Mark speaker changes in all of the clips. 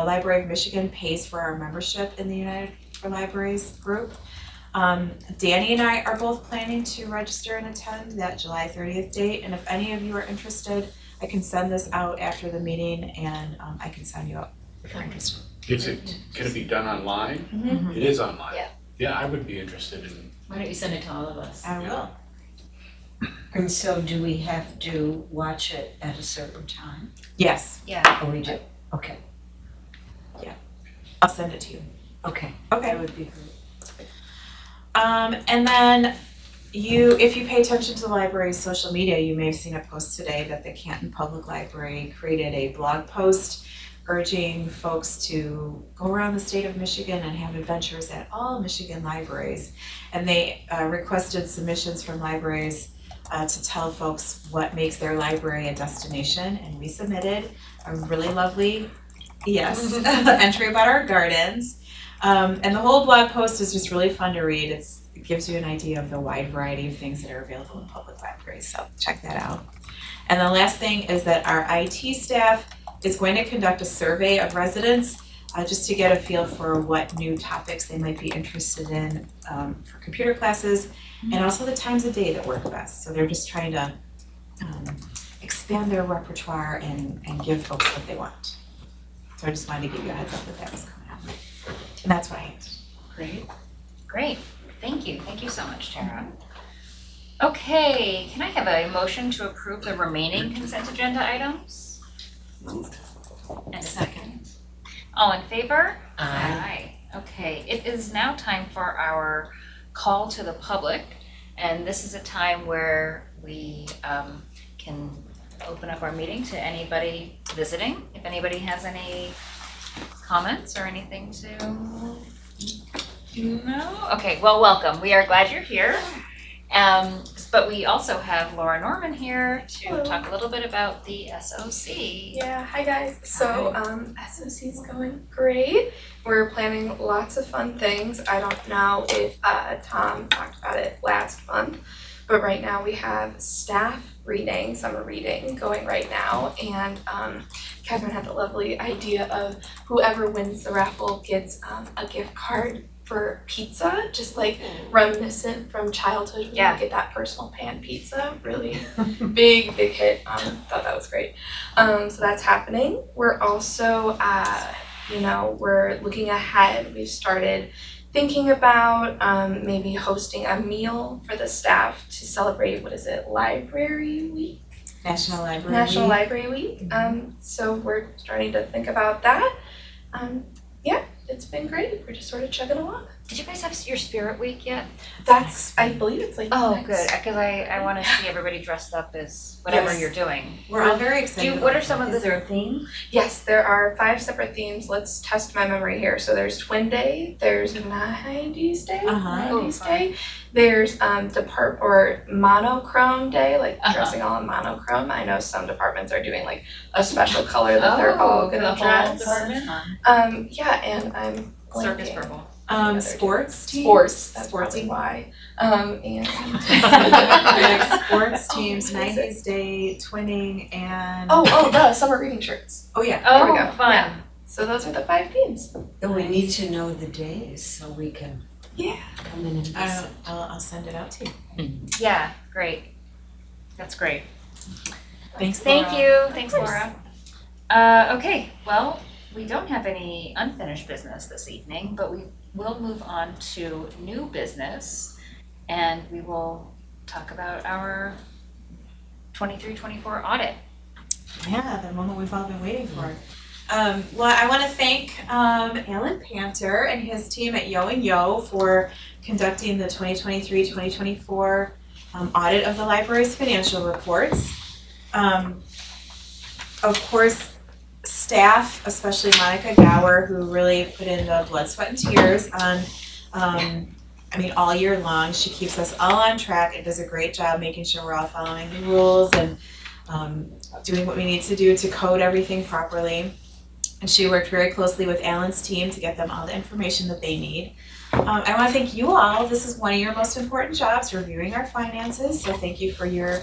Speaker 1: The Library of Michigan pays for our membership in the United for Libraries group. Um, Danny and I are both planning to register and attend that July thirtieth date, and if any of you are interested, I can send this out after the meeting and, um, I can sign you up. if you're interested.
Speaker 2: Is it, can it be done online?
Speaker 1: Mhm.
Speaker 2: It is online.
Speaker 3: Yeah.
Speaker 2: Yeah, I would be interested in,
Speaker 4: Why don't you send it to all of us?
Speaker 1: I will.
Speaker 5: And so do we have to watch it at a certain time?
Speaker 1: Yes,
Speaker 3: Yeah,
Speaker 5: Oh, we do, okay,
Speaker 1: I'll send it to you.
Speaker 5: okay,
Speaker 1: Okay.
Speaker 5: that would be great.
Speaker 1: Um, and then you, if you pay attention to the library's social media, you may have seen a post today that the Canton Public Library created a blog post urging folks to go around the state of Michigan and have adventures at all Michigan libraries. And they uh, requested submissions from libraries uh, to tell folks what makes their library a destination, and we submitted a really lovely, yes, entry about our gardens. Um, and the whole blog post is just really fun to read. It's, it gives you an idea of the wide variety of things that are available in public libraries, so check that out. And the last thing is that our IT staff is going to conduct a survey of residents uh, just to get a feel for what new topics they might be interested in um, for computer classes and also the times of day that work best. So they're just trying to um, expand their repertoire and, and give folks what they want. So I just wanted to give you a heads up that that was coming up. And that's right.
Speaker 4: Great.
Speaker 3: great. Thank you. Thank you so much, Tara. Okay, can I have a motion to approve the remaining consent agenda items? Moved. And a second. All in favor? Aye. Okay, it is now time for our call to the public. And this is a time where we um, can open up our meeting to anybody visiting. If anybody has any comments or anything to no? Okay, well, welcome. We are glad you're here. Um, but we also have Laura Norman here to
Speaker 6: Hello.
Speaker 3: talk a little bit about the SOC.
Speaker 6: Yeah, hi guys. So, um, SOC is going great. We're planning lots of fun things. I don't know if uh, Tom talked about it last month, but right now we have staff reading, summer reading going right now. And um, Catherine had the lovely idea of whoever wins the raffle gets um, a gift card for pizza, just like reminiscent from childhood when
Speaker 3: Yeah.
Speaker 6: you get that personal pan pizza. Really big, big hit. Um, thought that was great. Um, so that's happening. We're also, uh, you know, we're looking ahead. We've started thinking about um, maybe hosting a meal for the staff to celebrate what is it, Library Week?
Speaker 1: National Library.
Speaker 6: National Library Week. Um, so we're starting to think about that. Um, yeah, it's been great. We're just sort of chugging along.
Speaker 3: Did you guys have your spirit week yet?
Speaker 6: That's, I believe it's like.
Speaker 3: Oh,
Speaker 6: next-
Speaker 3: good, because I, I want to see everybody dressed up as whatever
Speaker 1: Yes.
Speaker 3: you're doing.
Speaker 1: We're all very
Speaker 3: Do
Speaker 1: excited.
Speaker 3: you, what are some of
Speaker 5: Is
Speaker 3: the,
Speaker 5: there a theme?
Speaker 6: Yes, there are five separate themes. Let's test my memory here. So there's Twin Day, there's 90s Day,
Speaker 1: Uh-huh.
Speaker 6: 90s
Speaker 3: Oh, fun.
Speaker 6: Day, there's um, depart or monochrome day, like
Speaker 3: Uh-huh.
Speaker 6: dressing all in monochrome. I know some departments are doing like a special color that they're all
Speaker 3: Oh, the
Speaker 6: gonna
Speaker 3: whole
Speaker 6: dress.
Speaker 3: department?
Speaker 6: Um, yeah, and I'm
Speaker 3: Circus
Speaker 6: blanking.
Speaker 3: purple.
Speaker 1: Um, sports teams.
Speaker 6: Sports. That's
Speaker 1: Sports
Speaker 6: probably
Speaker 1: team.
Speaker 6: why. Um, and
Speaker 1: Like sports teams,
Speaker 6: Oh, amazing.
Speaker 1: nineties day, twinning and.
Speaker 6: oh, oh, the summer reading shirts.
Speaker 1: Oh, yeah.
Speaker 6: There we
Speaker 3: Oh,
Speaker 6: go.
Speaker 3: fun.
Speaker 6: Yeah. So those are the five themes.
Speaker 5: Then we need to know the days so we can
Speaker 6: Yeah.
Speaker 5: come in and
Speaker 1: I'll,
Speaker 5: visit.
Speaker 1: I'll, I'll send it out to you.
Speaker 3: Yeah, great. That's great.
Speaker 1: Thanks,
Speaker 3: Thank
Speaker 1: Laura.
Speaker 3: you, thanks
Speaker 6: course.
Speaker 3: Laura. Uh, okay, well, we don't have any unfinished business this evening, but we will move on to new business. And we will talk about our twenty-three, twenty-four audit.
Speaker 1: Yeah, the moment we've all been waiting for. Um, well, I wanna thank, um, Alan Panter and his team at Yo and Yo for conducting the 2023-2024 um, audit of the library's financial reports. Um, of course, staff, especially Monica Gower, who really put in the blood, sweat and tears on, um, I mean, all year long, she keeps us all on track and does a great job making sure we're all following the rules and, um, doing what we need to do to code everything properly. And she worked very closely with Alan's team to get them all the information that they need. Um, I want to thank you all. This is one of your most important jobs, reviewing our finances. So thank you for your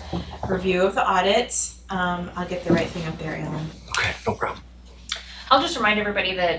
Speaker 1: review of the audit. Um, I'll get the right thing up there, Alan.
Speaker 7: Okay, no problem.
Speaker 4: I'll just remind everybody that